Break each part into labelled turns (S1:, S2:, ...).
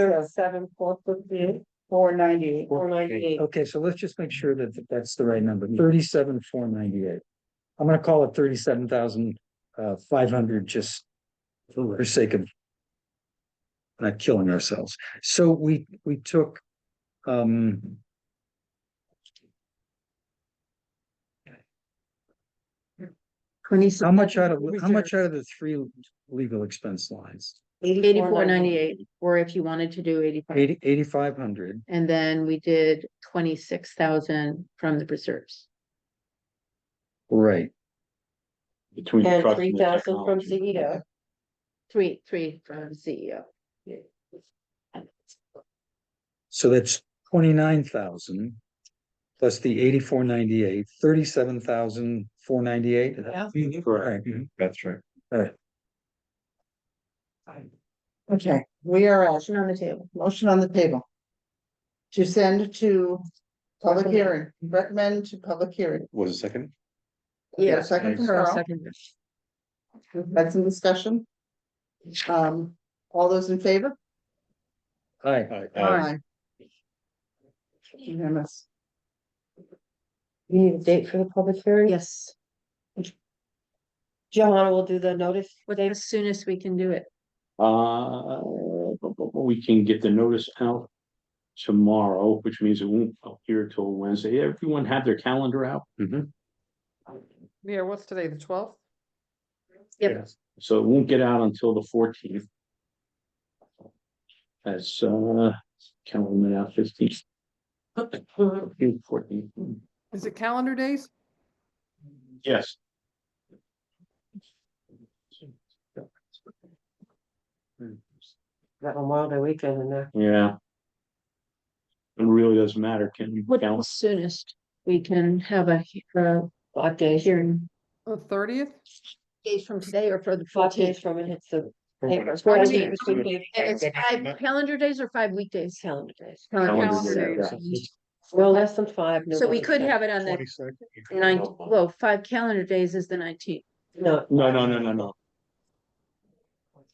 S1: Thirty-seven, four fifty, four ninety. Four ninety-eight.
S2: Okay, so let's just make sure that that's the right number, thirty-seven, four ninety-eight. I'm gonna call it thirty-seven thousand, uh, five hundred, just for the sake of not killing ourselves. So we, we took, um, how
S3: Twenty-seven,
S2: much out of, how much out of the three legal expense lines?
S3: eighty-four ninety-eight, or if you wanted to do eighty-five,
S2: Eighty, eighty-five hundred,
S3: and then we did twenty-six thousand from the reserves.
S2: right,
S4: Between.
S1: And
S4: trust
S1: three thousand from E
S4: technology.
S1: Zeta.
S3: Three, three from E CEO.
S2: so that's twenty-nine thousand plus the eighty-four ninety-eight, thirty-seven thousand, four ninety-eight.
S4: Mhm,
S2: All
S4: Correct,
S2: right, mhm.
S4: that's right.
S5: Okay, we are at
S3: Motion on the table.
S5: motion on the table. To send to public hearing, recommend to public hearing.
S4: Was it second?
S5: Yeah,
S3: Yeah.
S5: second to
S3: I'll
S5: Carl,
S3: second that.
S5: we've had some discussion. Um, all those in favor?
S2: Hi,
S4: Uh,
S5: Unanimous.
S1: You need a date for the public hearing?
S3: Yes,
S1: Johanna will do the notice.
S3: but as soon as we can do it.
S4: Uh, we can get the notice out tomorrow, which means it won't appear till Wednesday. Everyone have their calendar out?
S6: Yeah, what's today, the twelfth?
S3: Yep.
S4: Yes. So it won't get out until the fourteenth. That's uh, calendar now fifteenth. June fourteenth,
S6: Is it calendar days?
S4: yes.
S1: Got Memorial Day weekend in there.
S4: Yeah. It really doesn't matter, can you
S3: What
S4: count?
S3: else soonest we can have a, he- uh,
S1: Five days,
S3: hearing?
S6: The thirtieth?
S3: Days from today or for the
S1: five
S3: fourteenth?
S1: days from it hits the paper.
S3: Fourteen.
S1: Fourteen.
S3: It's five calendar days or five weekdays?
S1: Calendar days.
S3: Calendar
S6: Calendar
S3: days.
S1: Well, less than five. no
S3: So we
S1: less
S3: could
S1: than-
S3: have it on the ninth, well, five calendar days is the nineteenth.
S1: No,
S4: No, no, no, no, no,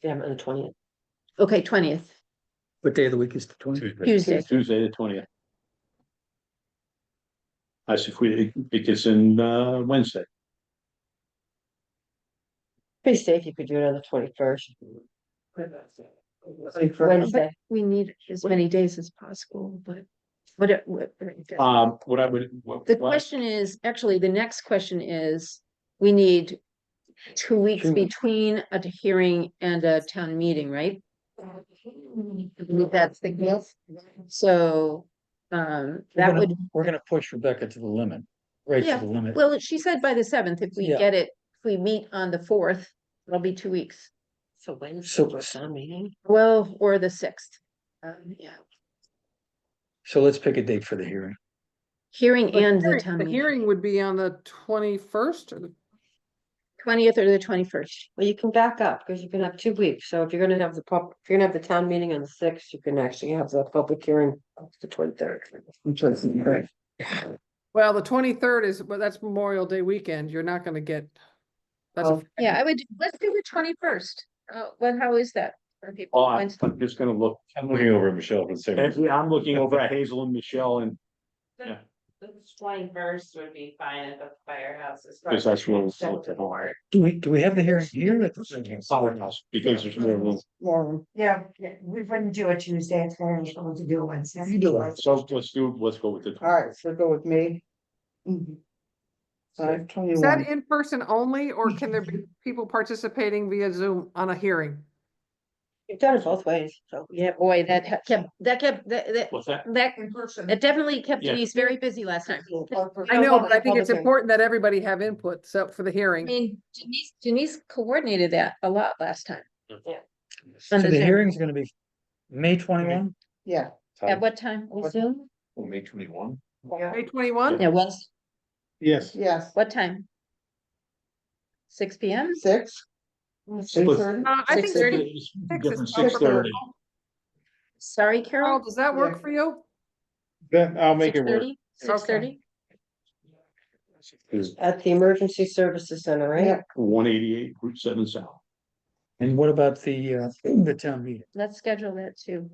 S1: damn, on the twentieth.
S3: Okay, twentieth,
S2: what day of the week is the twenty?
S3: Tuesday.
S4: Tuesday, the twentieth. I see if we, it gets in uh Wednesday,
S1: Pretty safe, you could do it on the twenty-first.
S3: But
S1: Wednesday.
S3: We need as many days as possible, but what it, what. it does.
S4: um, what I would. what-
S3: The
S4: what-
S3: question is, actually, the next question is, we need two weeks
S1: Two.
S3: between a hearing and a town meeting, right? Mm-hmm. That's the case. So, um, that would,
S2: We're gonna push Rebecca to the limit, right to
S3: Yeah,
S2: the limit.
S3: well, she said by the seventh, if we
S2: Yeah.
S3: get it, if we meet on the fourth, it'll be two weeks.
S1: So Wednesday,
S2: So-
S1: we're town meeting.
S3: Well, or the sixth. Um, yeah,
S2: So let's pick a date for the hearing.
S3: hearing and the town
S6: The
S3: meeting,
S6: hearing would be on the twenty-first or the
S3: twentieth or the twenty-first.
S1: Well, you can back up because you can have two weeks. So if you're gonna have the pub, if you're gonna have the town meeting on the sixth, you can actually have the public hearing on the twenty-third.
S6: Well, the twenty-third is, well, that's Memorial Day weekend. You're not gonna get. That's, a-
S1: Oh.
S3: Yeah, I would, let's do the twenty-first. Uh, well, how is that for people?
S4: Oh, I'm
S3: Wednesday?
S4: I'm just gonna look,
S7: I'm looking over at Michelle for the same.
S4: and
S7: reason.
S4: yeah, I'm looking over at Hazel and Michelle and, Yeah.
S8: The twenty first would be fine at the firehouse. as far
S4: because that's
S8: as-
S4: what was looked at more.
S2: Do we, do we have the hearing here at the?
S4: Firehouse, because there's more room,
S5: More,
S9: Yeah, yeah, we wouldn't do it Tuesday, it's very unusual to do it Wednesday.
S5: you do it.
S4: so let's do, let's go with the.
S5: All right, so go with me.
S9: Mm-hmm.
S5: Five
S6: is that
S5: twenty-one.
S6: in person only, or can there be people participating via Zoom on a hearing?
S1: You've done it both ways, so.
S3: Yeah, boy, that ha- kept, that kept, that, that,
S4: What's that?
S3: that, it definitely kept
S4: Yeah.
S3: Denise very busy last time.
S6: I know, but I
S1: public- public
S6: think it's
S1: hearing.
S6: important that everybody have input, so for the
S3: I
S6: hearing.
S3: mean, Denise, Denise coordinated that a lot last time.
S2: So the
S3: Understand.
S2: hearing's gonna be May twenty-one?
S5: Yeah,
S3: At what time?
S5: What-
S3: Zoom?
S7: May twenty-one.
S6: May twenty-one?
S3: Yeah, once,
S4: Yes.
S5: yes,
S3: what time? Six P M?
S5: six.
S9: Um,
S4: Six
S6: Uh, I think
S3: 6:30.
S4: Different
S6: is
S4: six thirty.
S3: Sorry,
S6: Carol,
S3: Carol?
S6: does that work for you?
S7: Then I'll
S3: Six thirty?
S1: At the Emergency Services Center, right?
S5: Yeah.
S4: One eighty-eight, Route seven south.
S2: And what about the, uh, the town meeting?
S3: Let's schedule that too.